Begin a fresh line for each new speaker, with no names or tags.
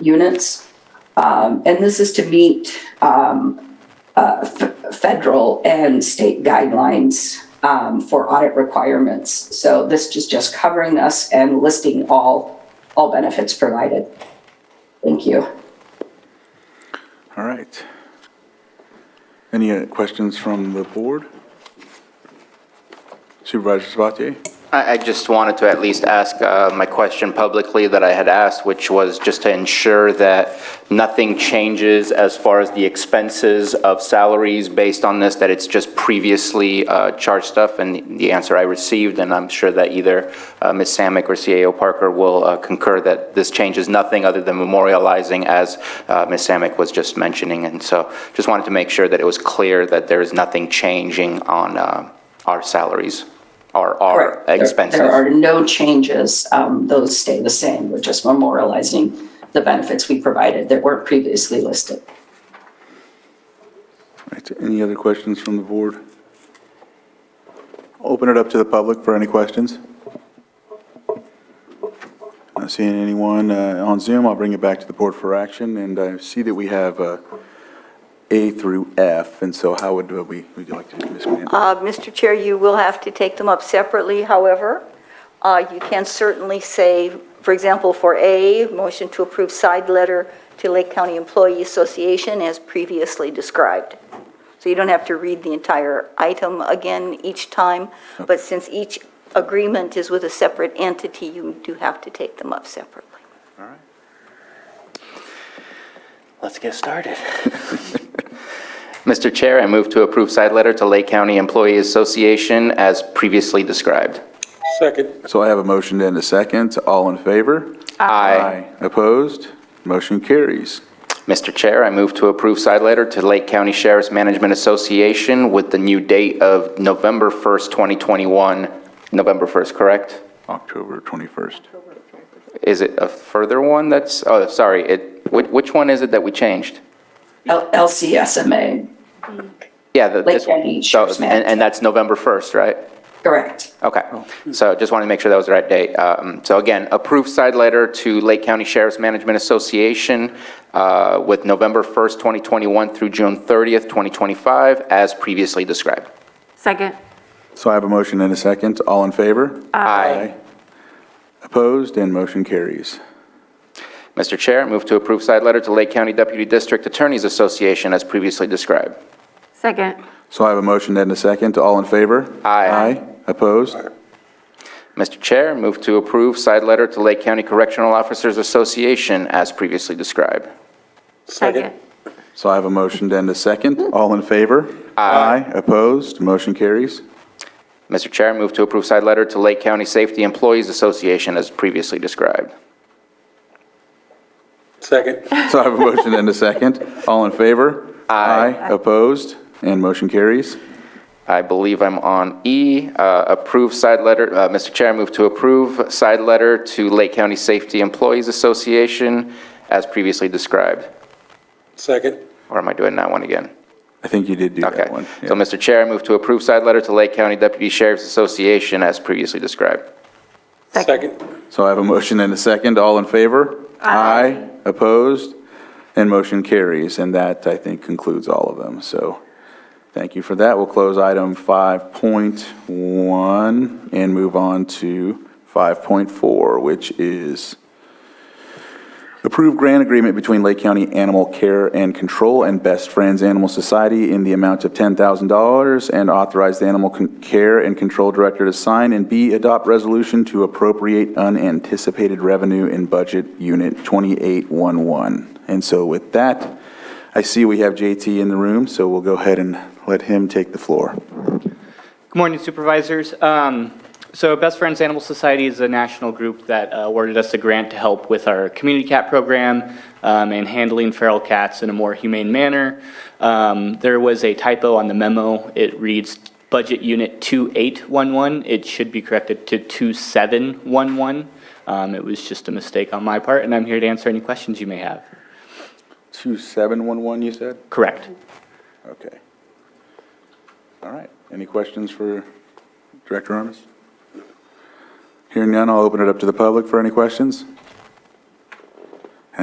units. Um, and this is to meet, um, uh, f- federal and state guidelines, um, for audit requirements. So this is just covering us and listing all, all benefits provided. Thank you.
All right. Any uh, questions from the board? Supervisor Sabatier?
I, I just wanted to at least ask uh, my question publicly that I had asked, which was just to ensure that nothing changes as far as the expenses of salaries based on this, that it's just previously uh, charged stuff, and the answer I received, and I'm sure that either uh, Ms. Samick or CAO Parker will uh, concur that this changes nothing other than memorializing, as uh, Ms. Samick was just mentioning, and so just wanted to make sure that it was clear that there is nothing changing on uh, our salaries or our
Correct. There-
expenses.
There are no changes. Um, those stay the same. We're just memorializing the benefits we provided that weren't previously listed.
All right, Any other questions from the board? Open it up to the public for any questions. Not seeing anyone uh, on Zoom. I'll bring it back to the board for action, and I see that we have uh, A through F, and so how would uh, we, would you like to do this? Ms. Mann?
Uh, Mr. Chair, you will have to take them up separately, however. Uh, You can certainly say, for example, for A, motion to approve side letter to Lake County Employee Association as previously described. So you don't have to read the entire item again each time, but since each agreement is with a separate entity, you do have to take them up separately.
Let's get started. Mr. Chair, I move to approve side letter to Lake County Employee Association as previously described.
Second.
So I have a motion and a second. All in favor?
Aye.
Opposed? Motion carries.
Mr. Chair, I move to approve side letter to Lake County Sheriff's Management Association with the new date of November 1st, 2021. November 1st, correct?
October 21st.
Is it a further one that's, oh, sorry, it, which, which one is it that we changed?
L- LCSMA,
Yeah, the-
Lake
this one.
County
So-
Sheriff's
And, and that's November 1st, right?
correct.
Okay, so just wanted to make sure that was the right date. Um, So again, approved side letter to Lake County Sheriff's Management Association uh, with November 1st, 2021 through June 30th, 2025, as previously described.
Second.
So I have a motion and a second. All in favor?
Aye.
Opposed? And motion carries.
Mr. Chair, move to approve side letter to Lake County Deputy District Attorneys Association as previously described.
Second.
So I have a motion and a second. All in favor?
Aye.
Aye. Opposed?
Mr. Chair, move to approve side letter to Lake County Correctional Officers Association as previously described.
Second.
So I have a motion and a second. All in favor? Aye. Opposed? Motion carries.
Mr. Chair, move to approve side letter to Lake County Safety Employees Association as previously described.
Second.
So I have a motion and a second. All in favor? Aye. Opposed? And motion carries.
I believe I'm on E, uh, approve side letter, uh, Mr. Chair, I move to approve side letter to Lake County Safety Employees Association as previously described.
Second.
Or am I doing that one again?
I think you did do
Okay.
that one.
So, Mr. Chair, I move to approve side letter to Lake County Deputy Sheriff's Association as previously described.
Second.
So I have a motion and a second. All in favor? Aye. Opposed? And motion carries. And that, I think, concludes all of them. So thank you for that. We'll close item 5.1 and move on to 5.4, which is approve grant agreement between Lake County Animal Care and Control and Best Friends Animal Society in the amount of $10,000 and authorize the Animal Con- Care and Control Director to sign, and B, adopt resolution to appropriate unanticipated revenue in Budget Unit 2811. And so with that, I see we have JT in the room, so we'll go ahead and let him take the floor.
Good morning supervisors. Um, So Best Friends Animal Society is a national group that uh, awarded us a grant to help with our community cat program um, and handling feral cats in a more humane manner. Um, There was a typo on the memo. It reads Budget Unit 2811. It should be corrected to 2711. Um, It was just a mistake on my part, and I'm here to answer any questions you may have.
2711, you said?
Correct.
Okay. All right. Any questions for Director Armas? Hearing none, I'll open it up to the public for any questions.